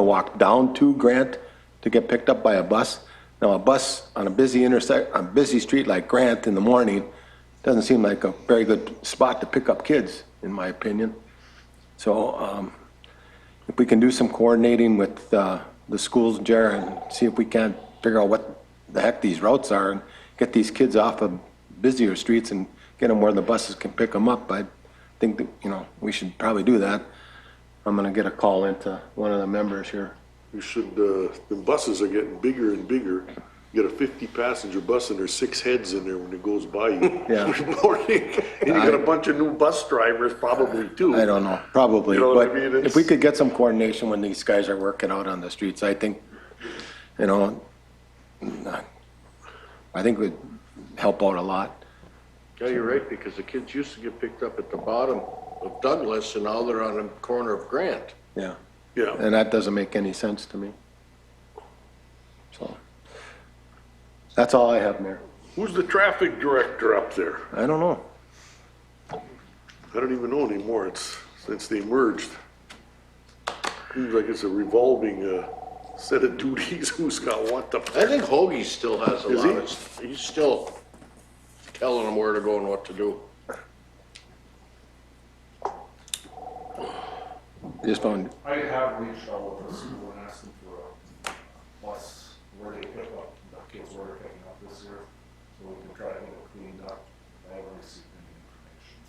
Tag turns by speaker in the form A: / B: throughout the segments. A: to walk down to Grant to get picked up by a bus. Now, a bus on a busy intersect, on a busy street like Grant in the morning, doesn't seem like a very good spot to pick up kids, in my opinion. So um, if we can do some coordinating with uh, the schools, Jer, and see if we can figure out what the heck these routes are and get these kids off of busier streets and get them where the buses can pick them up, I think, that you know, we should probably do that. I'm going to get a call into one of the members here.
B: You should, uh, the buses are getting bigger and bigger. You got a fifty passenger bus and there's six heads in there when it goes by you.
A: Yeah.
B: Every morning. And you got a bunch of new bus drivers probably too.
A: I don't know, probably,
B: You know what I
A: but
B: mean?
A: if
B: It's-
A: we could get some coordination when these guys are working out on the streets, I think, you know, I think would help out a lot.
C: Yeah, you're right, because the kids used to get picked up at the bottom of Douglas and now they're on the corner of Grant.
A: Yeah,
B: Yeah,
A: and that doesn't make any sense to me. So, that's all I have, Mayor.
B: who's the traffic director up there?
A: I don't know.
B: I don't even know anymore, it's, since they merged. Seems like it's a revolving, uh, set of duties, who's got what the.
C: I think Hoagie still has a
B: Is
C: lot
B: he?
C: of, s- he's still telling them where to go and what to do.
A: Just found,
D: I have reached out to the school and asked them for a bus where they pick up, the kids where they're picking up this year, so we can try to get it cleaned up. I haven't received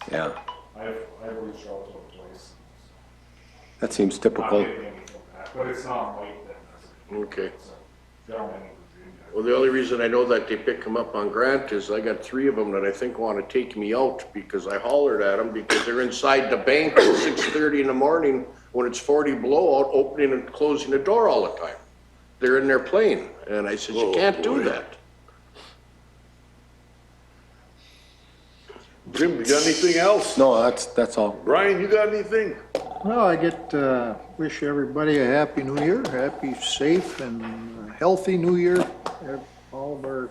D: any
A: yeah,
D: information. I've, I've reached out to a place,
A: that seems
D: not
A: typical.
D: getting anything back, but it's not Mike that does it.
C: Okay.
D: It's a gentleman in Virginia.
C: Well, the only reason I know that they pick him up on Grant is I got three of them that I think want to take me out because I hollered at them because they're inside the bank at six thirty in the morning when it's forty below out, opening and closing the door all the time. They're in their plane, and I said, you
B: Whoa,
C: can't do
B: Oh, boy.
C: that.
B: Jim, you got anything else?
A: No, that's, that's all.
B: Brian, you got anything?
E: Well, I get, uh, wish everybody a happy new year, happy, safe, and uh, healthy new year. All of our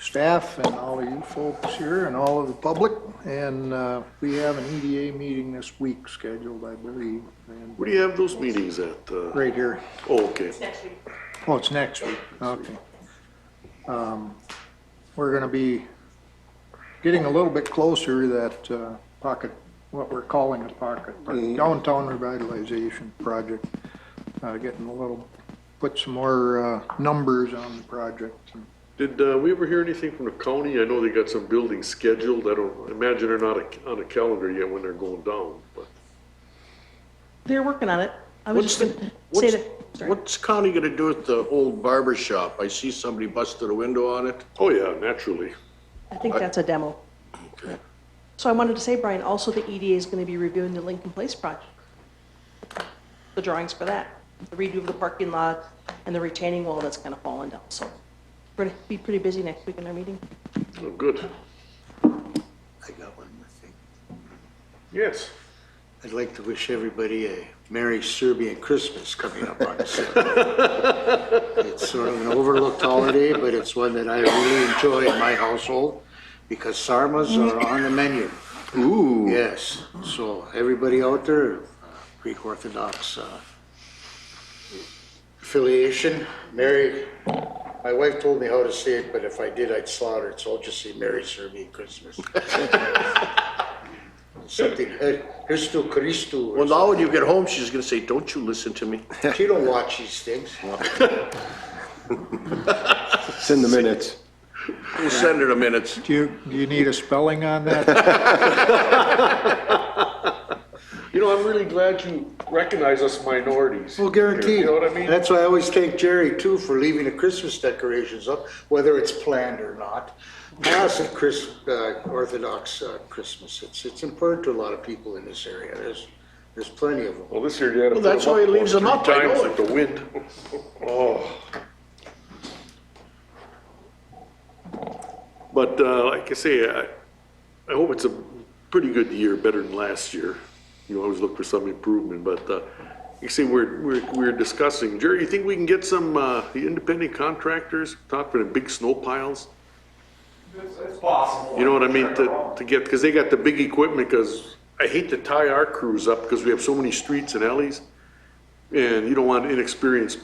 E: staff and all of you folks here and all of the public. And, uh, we have an EDA meeting this week scheduled, I believe, and
B: Where do you have those meetings at? uh,
E: right here.
B: Oh, okay.
E: Oh, it's next week, okay. Um, We're gonna be getting a little bit closer to that uh, pocket, what we're calling a pocket, park, downtown revitalization project. Uh, Getting a little, put some more uh, numbers on the project.
B: Did uh, we ever hear anything from the county? I know they got some buildings scheduled. I don't, imagine they're not a- on a calendar yet when they're going down, but
F: They're working on it. I was
C: What's
F: just
C: the,
F: gonna say
C: what's,
F: that, sorry.
C: what's county gonna do with the old barber shop? I see somebody busted a window on it.
B: oh yeah, naturally.
F: I think that's a demo. So I wanted to say, Brian, also the EDA is gonna be reviewing the Lincoln Place project. The drawings for that, the redo of the parking lot and the retaining wall that's kind of fallen down, so we're gonna be pretty busy next week in our meeting.
B: Oh, good.
G: I got one more thing.
B: Yes.
G: I'd like to wish everybody a Merry Serbian Christmas coming up on Sunday. It's sort of an overlooked holiday, but it's one that I really enjoy in my household because sarmas are on the menu. Ooh. Yes, so everybody out there, uh, Greek Orthodox uh, affiliation, Merry, my wife told me how to say it, but if I did, I'd slaughter it, so I'll just say Merry Serbian Christmas. Something, eh, Christu, Christu. or
C: Well, now when you get home, she's gonna say, don't you listen to me?
G: she don't watch these things.
A: It's in the minutes.
C: We'll send her the minutes.
E: Do you, do you need a spelling on that?
B: You know, I'm really glad you recognize us minorities.
G: Well, guaranteed.
B: You know what I mean?
G: That's why I always thank Jerry too for leaving the Christmas decorations up, whether it's planned or not. Mass and Chris, uh, Orthodox uh, Christmas, it's, it's important to a lot of people in this area. There's, there's plenty of them.
B: Well, this year you had to.
C: Well, that's why he leaves them up, I
B: Times
C: know
B: with the wind. Oh. But uh, like I say, I, I hope it's a pretty good year, better than last year. You always look for some improvement, but uh, you see, we're, we're, we're discussing, Jerry, you think we can get some, uh, the independent contractors, talk for the big snow piles?
D: It's, it's possible.
B: You know what I mean, to, to get, because they got the big equipment, because I hate to tie our crews up, because we have so many streets and alleys. And you don't want inexperienced